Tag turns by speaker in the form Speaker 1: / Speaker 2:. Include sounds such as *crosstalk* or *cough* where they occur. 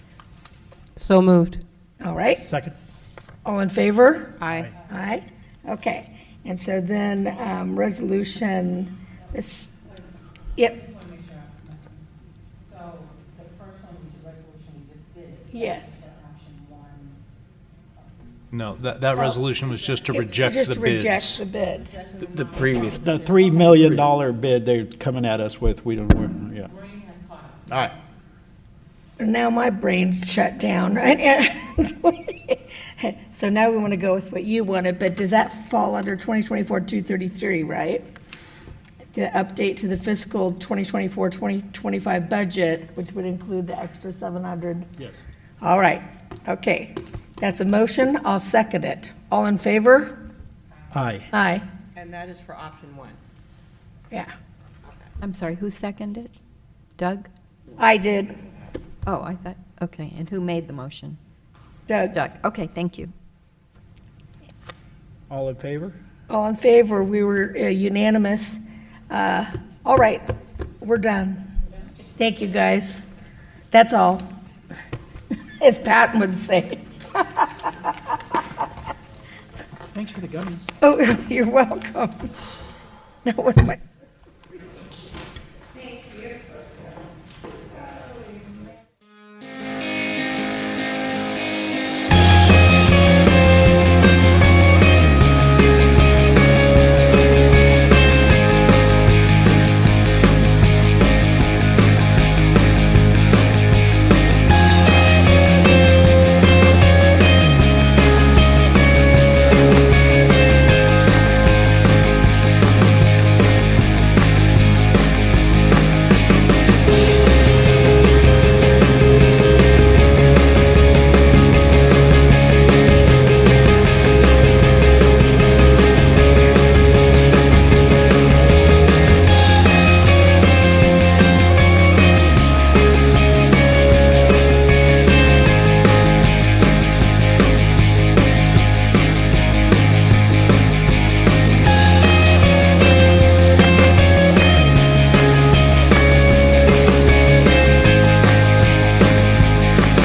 Speaker 1: So moved.
Speaker 2: All right,
Speaker 3: Second.
Speaker 2: all in favor?
Speaker 1: Aye.
Speaker 2: Aye, okay. And so then, um, resolution, this, yep,
Speaker 4: Just want to make sure. I'm clear. So the first one, which is resolution we just did.
Speaker 2: Yes.
Speaker 4: That's option one.
Speaker 5: No, that, that resolution was just to
Speaker 2: it-
Speaker 5: reject the bids.
Speaker 2: Just reject the bid.
Speaker 6: The previous,
Speaker 3: The three million dollar bid they're coming at us with, we don't, we're- yeah.
Speaker 4: Green has caught up.
Speaker 3: All right.
Speaker 2: Now my brain's shut down. *laughs* So now we want to go with what you wanted, but does that fall under 2024-233, right? The update to the fiscal 2024-2025 budget, which would include the extra 700? Yes. All right, okay. That's a motion, I'll second it. All in favor?
Speaker 3: Aye.
Speaker 2: Aye,
Speaker 7: And that is for option one.
Speaker 2: yeah.
Speaker 8: I'm sorry, who seconded? Doug?
Speaker 2: I did,
Speaker 8: Oh, I thought, okay, and who made the motion?
Speaker 2: Doug.
Speaker 8: Doug, okay, thank you.
Speaker 3: All in favor?
Speaker 2: All in favor, we were uh, unanimous. Uh, All right, we're done. Thank you, guys. That's all, *laughs* as Patton would say.
Speaker 3: Thanks for the gummies.
Speaker 2: *laughs* Oh, you're welcome. Now, what am I?